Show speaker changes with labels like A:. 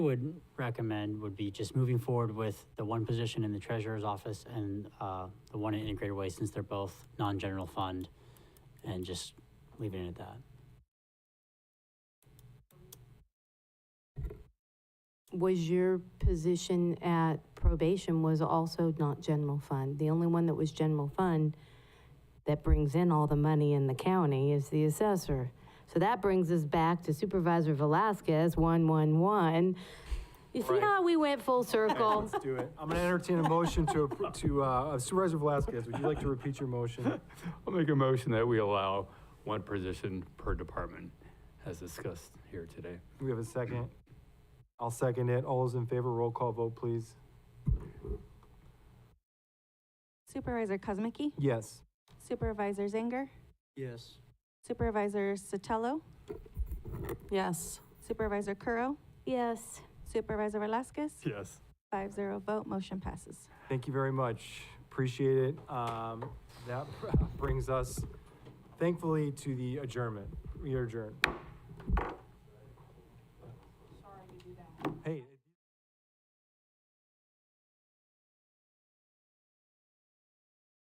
A: would recommend would be just moving forward with the one position in the treasurer's office and uh, the one in integrated waste, since they're both non-general fund, and just leaving it at that.
B: Was your position at probation was also not general fund? The only one that was general fund that brings in all the money in the county is the assessor. So that brings us back to Supervisor Velasquez, 111. You see
C: Right.
B: how we went full circle?
C: Let's do it. I'm going to entertain a motion to, appro- to uh, Supervisor Velasquez, would you like to repeat your motion?
D: I'll make a motion that we allow one position per department as discussed here today.
C: We have a second. I'll second it. All those in favor, roll call vote, please.
E: Supervisor Cosmicki,
C: Yes.
E: Supervisor Zanger,
F: Yes.
E: Supervisor Sotelo,
G: Yes.
E: Supervisor Curro,
B: Yes.
E: Supervisor Velasquez,
D: Yes.
E: five zero vote, motion passes.
C: Thank you very much. Appreciate it. Um, That brings us thankfully to the adjournment. We are adjourned.